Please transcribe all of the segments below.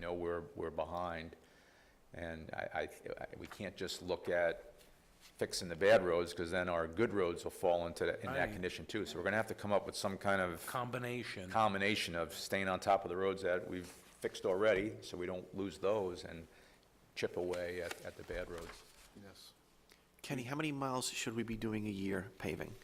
know we're, we're behind. And I, I, I- we can't just look at fixing the bad roads, because then our good roads will fall into, that- in that Right. condition too. So we're gonna have to come up with some kind of combination. combination of staying on top of the roads that we've fixed already, so we don't lose those, and chip away at, at the bad roads. Yes. Kenny, how many miles should we be doing a year paving?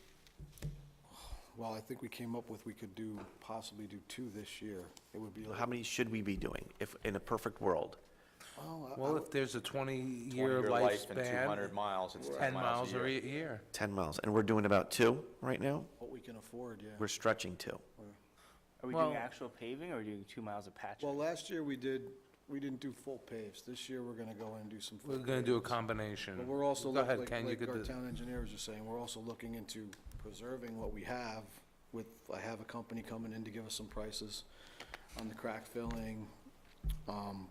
Well, I think we came up with we could do, possibly do two this year. It would be like. How many should we be doing if, in a perfect world? Oh, I- I Well, would- if there's a 20-year Your life and two hundred lifespan, miles, it's 10 miles a year. or a year. Ten miles, and we're doing about two right now? What we can afford, yeah. We're stretching two. Are we Well- doing actual paving or are we doing two miles of patch? Well, last year we did, we didn't do full paves. This year, we're gonna go in and do some. full We're going to do a paves. combination. But we're also, Go look- ahead, like, Ken, you like could our do- town engineers are saying, we're also looking into preserving what we have with, I have a company coming in to give us some prices on the crack filling. Um,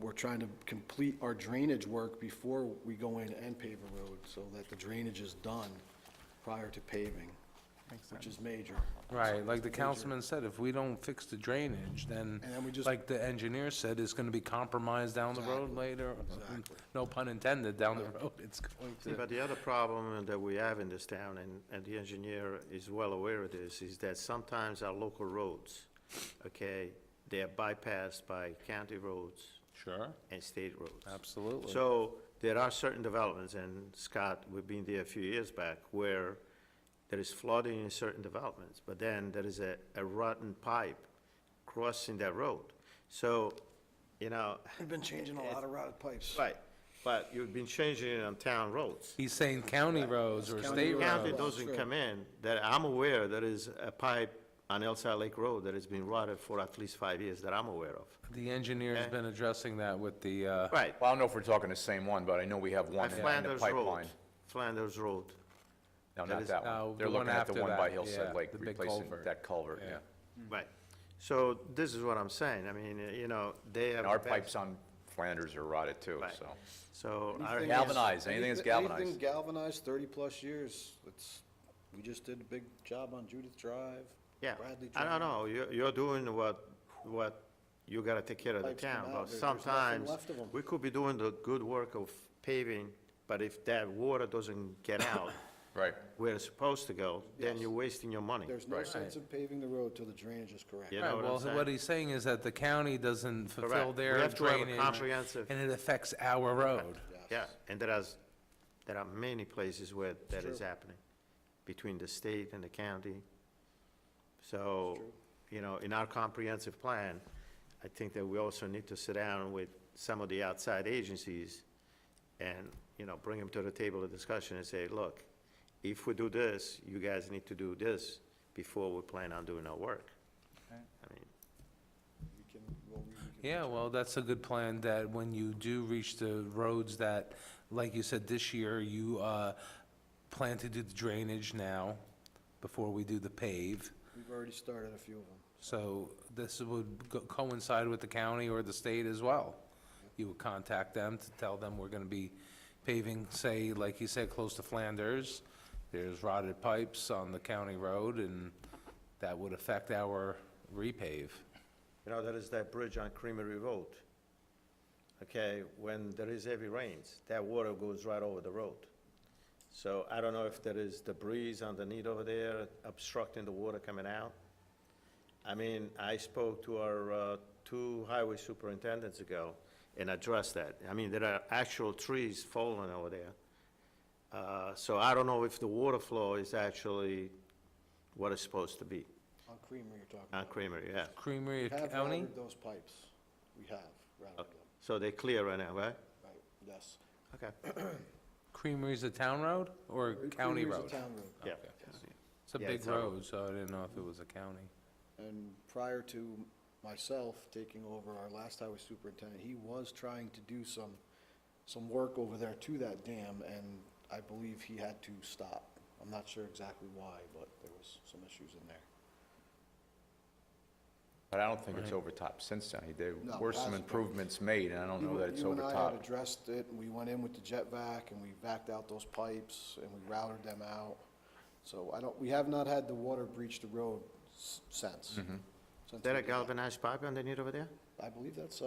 We're trying to complete our drainage work before we go in and pave a road, so that the drainage is done prior to paving, which is major. Right, like the councilman said, if we don't fix the drainage, then, And then we just- like the engineer said, it's going to be compromised down the road later. exactly. No pun intended, down the road, it's going Yeah, to, But the other problem that we have in this town, and, and the engineer is well aware of this, is that sometimes our local roads, okay, they are bypassed by county roads sure, and state roads. absolutely. So there are certain developments, and Scott, we've been there a few years back, where there is flooding in certain developments, but then there is a, a rotten pipe crossing that road. So, you know, We've been changing a lot of routed pipes. right, but you've been changing it on town roads. He's saying county roads or County state roads. County roads. doesn't come in, that I'm aware there is a pipe on Elsa Lake Road that has been rotted for at least five years that I'm aware of. The engineer's Okay. been addressing that with the, uh, Right, Well, I don't know if we're talking the same one, but I know we have one at in the Flanders Road, pipeline. Flanders Road. No, That not is- that No, one. They're Oh, the looking one at the after one by that, yeah, Hillside Lake, the big replacing culvert. that culvert, yeah. Right. So this is what I'm saying. I mean, uh, you know, they have. And our bad- pipes on Flanders are rotted too, Right. so. So our. Anything- Galvanized, anything that's Anything galvanized. galvanized, thirty-plus years, it's, we just did a big job on Judith Drive, Yeah, Bradley I Drive. don't know. You're, you're doing what, what, you gotta take care of the Pipes come town, out, but there- there's nothing sometimes left of 'em. we could be doing the good work of paving, but if that water doesn't get out Right. where it's supposed to go, then you're wasting your money. There's no sense in paving the road till the drainage is correct. You know Right, what I'm well, saying? what he's saying is that the county doesn't fulfill Correct. We their have to have a drainage, comprehensive- and it affects our road. Yeah, and there is, there are many places where that is happening, between the state and the county. So, you know, in our comprehensive plan, I think that we also need to sit down with some of the outside agencies and, you know, bring them to the table of discussion and say, look, if we do this, you guys need to do this before we plan on doing our work. I mean, We can- well, we- we can- Yeah, well, that's a good plan, that when you do reach the roads that, like you said, this year, you uh, plan to do the drainage now, before we do the pave. We've already started a few of them. So this would go- coincide with the county or the state as well. You would contact them to tell them we're gonna be paving, say, like you said, close to Flanders. There's rotted pipes on the county road, and that would affect our repave. You know, there is that bridge on Creamery Road. Okay, when there is heavy rains, that water goes right over the road. So I don't know if there is debris underneath over there obstructing the water coming out. I mean, I spoke to our uh, two highway superintendents ago and addressed that. I mean, there are actual trees falling over there. Uh, So I don't know if the water flow is actually what it's supposed to be On Creamery you're talking on about. Creamery, yeah. Creamery We have County? routed those pipes. We have routed them, So they're clear right now, right? right, yes. Okay. Creamery's a town road or a county Creamery's a road? town road. Yeah. It's a Yeah, big it's a road. road, so I didn't know if it was a county. And prior to myself taking over our last highway superintendent, he was trying to do some, some work over there to that dam, and I believe he had to stop. I'm not sure exactly why, but there was some issues in there. But I don't think it's overtopped since then. There No, were some hasn't been. improvements made, and I don't know You- that it's You and I had overtopped. addressed it, and we went in with the jet vac, and we backed out those pipes, and we routed them out. So I don't, we have not had the water breach the road s- since. Since Is there we Mm-hmm. a did that. galvanized pipe underneath over there? I believe that's